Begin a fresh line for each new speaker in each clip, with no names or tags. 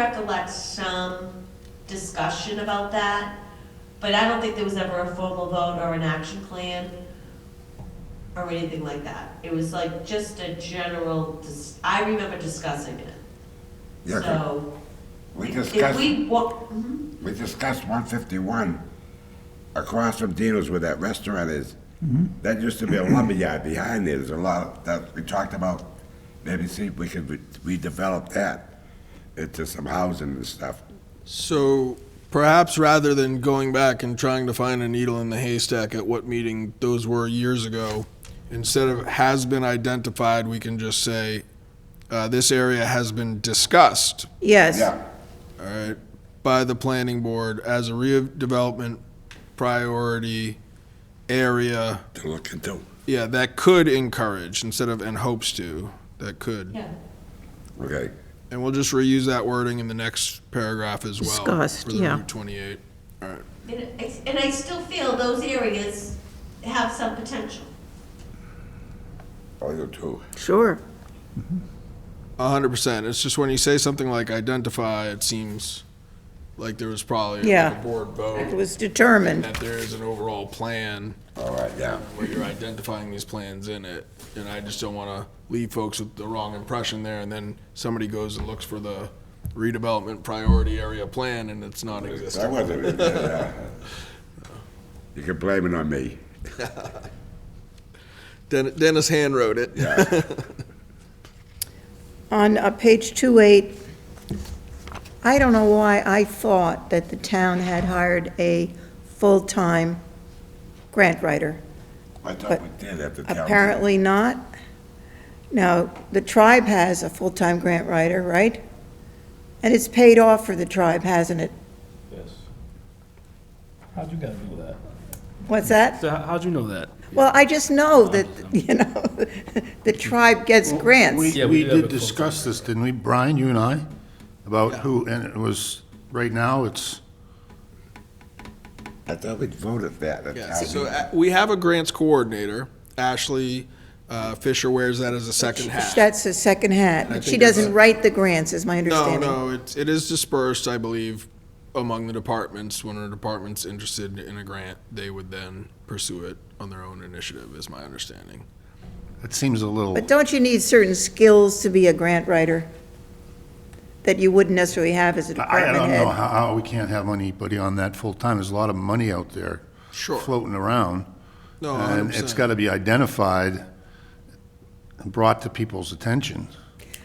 recollect some discussion about that, but I don't think there was ever a formal vote or an action plan or anything like that. It was like just a general, dis- I remember discussing it.
Yeah, 'cause
So
We
if
discussed,
we, wa- mhm.
we discussed one fifty-one across from Dino's where that restaurant is.
Mm-hmm.
That used to be a lumber yard behind there. There's a lot of, that, we talked about, maybe see if we could re- redevelop that into some housing and stuff.
So perhaps rather than going back and trying to find a needle in the haystack at what meeting those were years ago, instead of has been identified, we can just say, uh, this area has been discussed,
Yes,
Yeah,
all right, by the planning board as a redevelopment priority area.
to look into.
Yeah, that could encourage instead of and hopes to, that could.
yeah,
Okay,
And we'll just reuse that wording in the next paragraph as well.
Discussed,
For the
yeah.
Route 28. All right.
and I- and I still feel those areas have some potential.
oh, you too.
sure.
A hundred percent. It's just when you say something like identify, it seems like there was probably like,
Yeah.
a board
It
vote
was determined.
that there is an overall plan
All right, yeah.
where you're identifying these plans in it. And I just don't want to leave folks with the wrong impression there. And then somebody goes and looks for the redevelopment priority area plan and it's
That
non-existent.
wasn't, it, yeah. You can blame it on me.
Den- Dennis hand wrote it.
On uh, page 28, I don't know why I thought that the town had hired a full-time grant writer.
I thought
But
we did at the town. meeting.
Apparently not. Now, the tribe has a full-time grant writer, right? And it's paid off for the tribe, hasn't it?
Yes. How'd you guys know that?
What's that?
So how- how'd you know that?
Well, I just know that, you know, the tribe gets grants.
Yeah, we
We, we
do have a
did
full-time.
discuss this, didn't we, Brian, you and I? About who, and it was, right now, it's,
I thought we voted that at
Yeah,
town.
so
meeting.
uh, we have a grants coordinator. Ashley uh, Fisher wears that as a second hat.
That's the second hat, but she
think it's-
doesn't write the grants, is my
No,
understanding.
no, it, it is dispersed, I believe, among the departments. When a department's interested in a grant, they would then pursue it on their own initiative, is my understanding.
it seems a little,
But don't you need certain skills to be a grant writer that you wouldn't necessarily have as a
I I
department
don't know
head?
how, how we can't have anybody on that full-time. There's a lot of money out there
Sure.
floating around.
No,
And it's
100%.
got to be identified and brought to people's attention.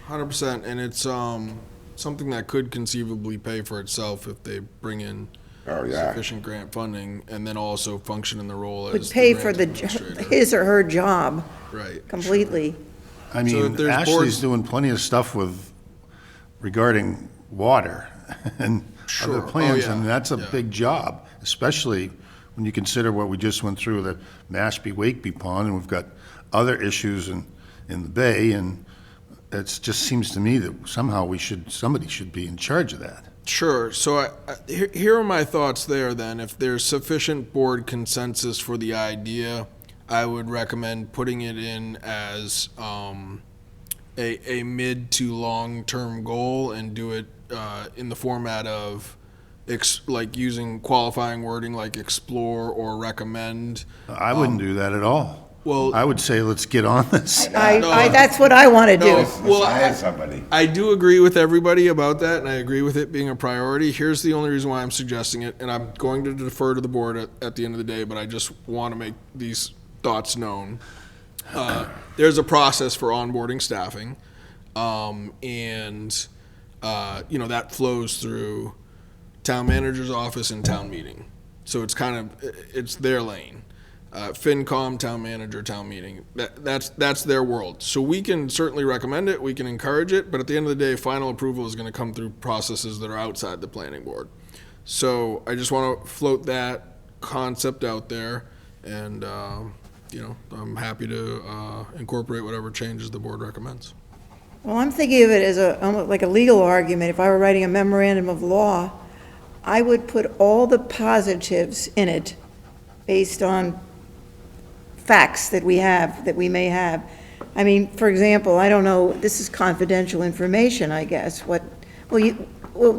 Hundred percent, and it's um something that could conceivably pay for itself if they bring in
Oh, yeah.
sufficient grant funding, and then also function in the role
Would
as
pay
the
for
grant
the, jo-
administrator.
his or her job
right.
completely.
I
if
mean,
there's boards-
Ashley's doing plenty of stuff with, regarding water and
Sure.
other
Oh,
plans,
yeah.
and that's a
Yeah.
big job, especially when you consider what we just went through with the Mashpee Wakeby Pond, and we've got other issues in, in the bay, and it just seems to me that somehow we should, somebody should be in charge of that.
Sure. So I, I, here, here are my thoughts there then. If there's sufficient board consensus for the idea, I would recommend putting it in as um, a, a mid to long term goal and do it uh, in the format of ex, like using qualifying wording like explore or recommend.
I wouldn't do that at all.
well-
I would say, let's get on this.
I,
No.
I, that's what I want to do.
No.
Let's
Well,
hire
I-
somebody.
I do agree with everybody about that, and I agree with it being a priority. Here's the only reason why I'm suggesting it, and I'm going to defer to the board at, at the end of the day, but I just want to make these thoughts known. Uh, there's a process for onboarding staffing, um, and uh, you know that flows through town manager's office and town meeting. So it's kind of it's their lane. Uh, FinCom, town manager, town meeting. That, that's that's their world. So we can certainly recommend it. We can encourage it. But at the end of the day, final approval is going to come through processes that are outside the planning board. So I just want to float that concept out there, and um, you know I'm happy to uh, incorporate whatever changes the board recommends.
Well, I'm thinking of it as a, almost like a legal argument. If I were writing a memorandum of law, I would put all the positives in it based on facts that we have, that we may have. I mean, for example, I don't know, this is confidential information, I guess, what, well, you,